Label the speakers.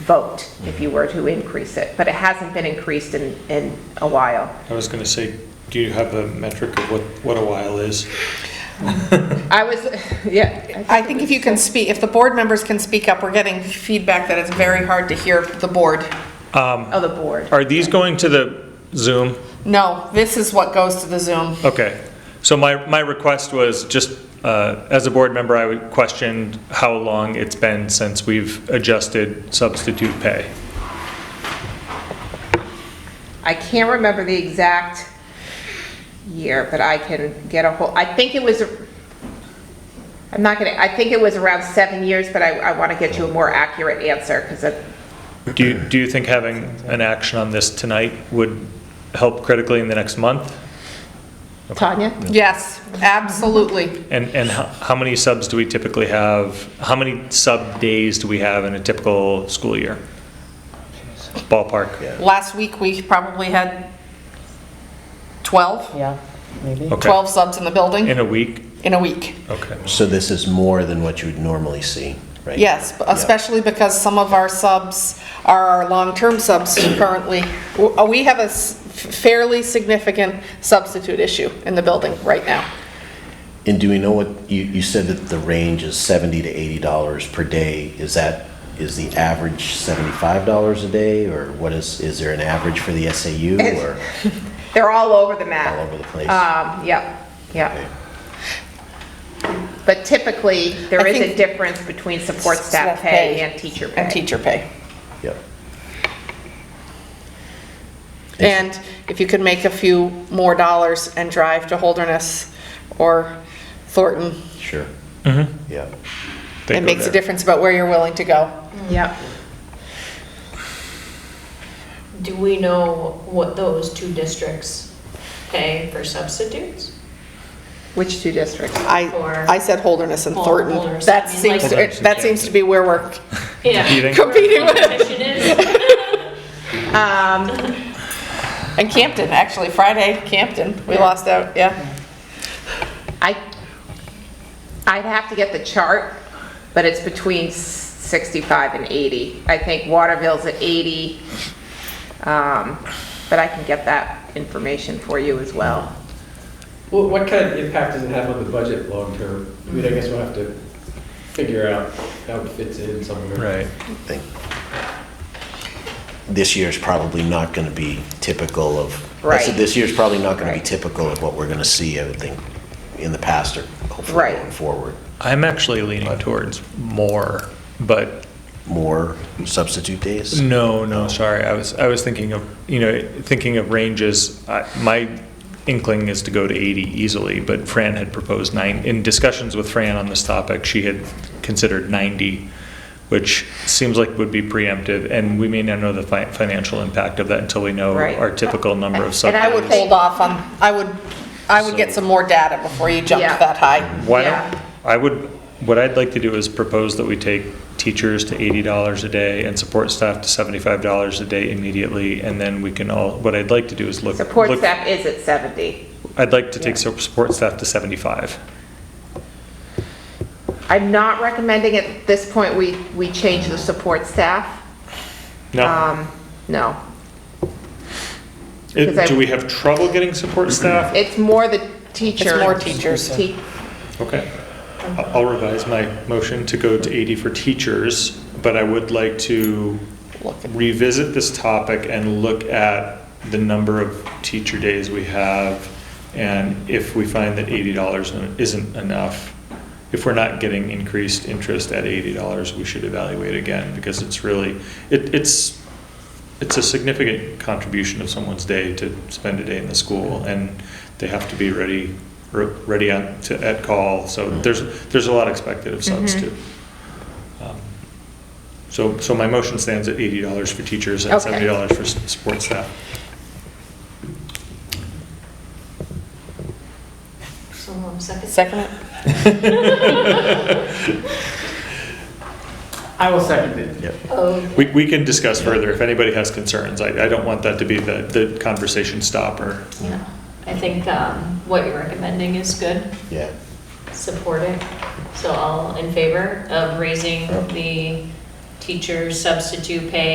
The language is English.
Speaker 1: vote if you were to increase it, but it hasn't been increased in, in a while.
Speaker 2: I was going to say, do you have a metric of what, what a while is?
Speaker 1: I was, yeah.
Speaker 3: I think if you can speak, if the board members can speak up, we're getting feedback that it's very hard to hear the board.
Speaker 1: Oh, the board.
Speaker 2: Are these going to the Zoom?
Speaker 3: No, this is what goes to the Zoom.
Speaker 2: Okay. So my, my request was just, uh, as a board member, I would question how long it's been since we've adjusted substitute pay.
Speaker 1: I can't remember the exact year, but I can get a whole, I think it was, I'm not gonna, I think it was around seven years, but I, I want to get you a more accurate answer, because it,
Speaker 2: Do you, do you think having an action on this tonight would help critically in the next month?
Speaker 1: Tanya?
Speaker 3: Yes, absolutely.
Speaker 2: And, and how, how many subs do we typically have? How many sub days do we have in a typical school year? Ballpark?
Speaker 3: Last week, we probably had 12,
Speaker 4: Yeah, maybe.
Speaker 2: Okay.
Speaker 3: 12 subs in the building
Speaker 2: In a week?
Speaker 3: in a week.
Speaker 2: Okay.
Speaker 5: So this is more than what you would normally see, right?
Speaker 3: Yes, b- especially because some of our subs are our long-term subs currently. W- uh, We have a s- fairly significant substitute issue in the building right now.
Speaker 5: And do we know what, you, you said that the range is 70 to 80 dollars per day. Is that, is the average 75 dollars a day? Or what is, is there an average for the SAU or
Speaker 1: They're all over the map.
Speaker 5: all over the place?
Speaker 1: Um, yep,
Speaker 5: Okay.
Speaker 1: yep. But typically, there
Speaker 3: I
Speaker 1: is a
Speaker 3: think-
Speaker 1: difference between support staff pay and teacher pay.
Speaker 3: And teacher pay.
Speaker 5: Yep.
Speaker 3: And if you could make a few more dollars and drive to Holderness or Thornton,
Speaker 5: Sure. Yeah.
Speaker 2: They
Speaker 3: it
Speaker 2: go
Speaker 3: makes a
Speaker 2: there.
Speaker 3: difference about where you're willing to go.
Speaker 6: Mm.
Speaker 1: Yep.
Speaker 6: Do we know what those two districts pay for substitutes?
Speaker 1: Which two districts?
Speaker 3: I, I said Holderness and
Speaker 6: Or
Speaker 3: Thornton.
Speaker 6: Holderness,
Speaker 3: That
Speaker 6: I mean, like-
Speaker 3: seems, it- that seems to be where we're
Speaker 6: Yeah.
Speaker 3: competing with.
Speaker 6: Competition is.
Speaker 3: And Campton, actually, Friday, Campton, we lost out, yeah.
Speaker 1: I, I'd have to get the chart, but it's between 65 and 80. I think Waterville's at 80, um, but I can get that information for you as well.
Speaker 7: Well, what kind of impact does it have on the budget long term? I mean, I guess we'll have to figure out how it fits in somewhere.
Speaker 2: Right.
Speaker 5: I think This year's probably not going to be typical of, I said
Speaker 1: Right.
Speaker 5: this year's probably not going to be
Speaker 1: Right.
Speaker 5: typical of what we're going to see, I would think, in the past or hopefully
Speaker 1: Right.
Speaker 5: going forward.
Speaker 2: I'm actually leaning towards more, but
Speaker 5: More substitute days?
Speaker 2: no, no, sorry. I was, I was thinking of, you know, thinking of ranges. I- My inkling is to go to 80 easily, but Fran had proposed nine. In discussions with Fran on this topic, she had considered 90, which seems like would be preemptive, and we may not know the fi- financial impact of that until we know
Speaker 1: Right.
Speaker 2: our typical number of
Speaker 1: And
Speaker 2: sub.
Speaker 1: I
Speaker 3: I would hold off on, I would, I would get some more data before you jumped
Speaker 1: Yeah.
Speaker 3: that high.
Speaker 2: Why
Speaker 1: Yeah.
Speaker 2: don't, I would, what I'd like to do is propose that we take teachers to eighty dollars a day and support staff to seventy-five dollars a day immediately, and then we can all, what I'd like to do is look.
Speaker 1: Support
Speaker 2: look-
Speaker 1: staff is at 70.
Speaker 2: I'd like to take su- support staff to seventy-five.
Speaker 1: I'm not recommending at this point we, we change the support staff.
Speaker 2: No,
Speaker 1: Um, No. because I-
Speaker 2: It- do we have trouble getting support staff?
Speaker 1: It's more the teacher.
Speaker 3: more teachers.
Speaker 1: Te-
Speaker 2: Okay. I- I'll revise my motion to go to eighty for teachers, but I would like to
Speaker 3: Look at-
Speaker 2: revisit this topic and look at the number of teacher days we have, and if we find that eighty dollars isn't enough, if we're not getting increased interest at eighty dollars, we should evaluate again, because it's really, it, it's, it's a significant contribution of someone's day to spend a day in the school, and they have to be ready, re- ready on, to, at call, so there's, there's a lot expected of subs too. Um, So, so my motion stands at eighty dollars for teachers and
Speaker 1: Okay.
Speaker 2: seventy dollars for s- support staff.
Speaker 6: So, um, second.
Speaker 3: Second it?
Speaker 7: I will second it.
Speaker 1: Mm.
Speaker 6: Oh,
Speaker 2: We, we can discuss further if anybody has concerns, I, I don't want that to be the, the conversation stopper.
Speaker 6: yeah. I think um, what you're recommending is good.
Speaker 5: Yeah.
Speaker 6: Support it. So all in favor of raising the teacher substitute pay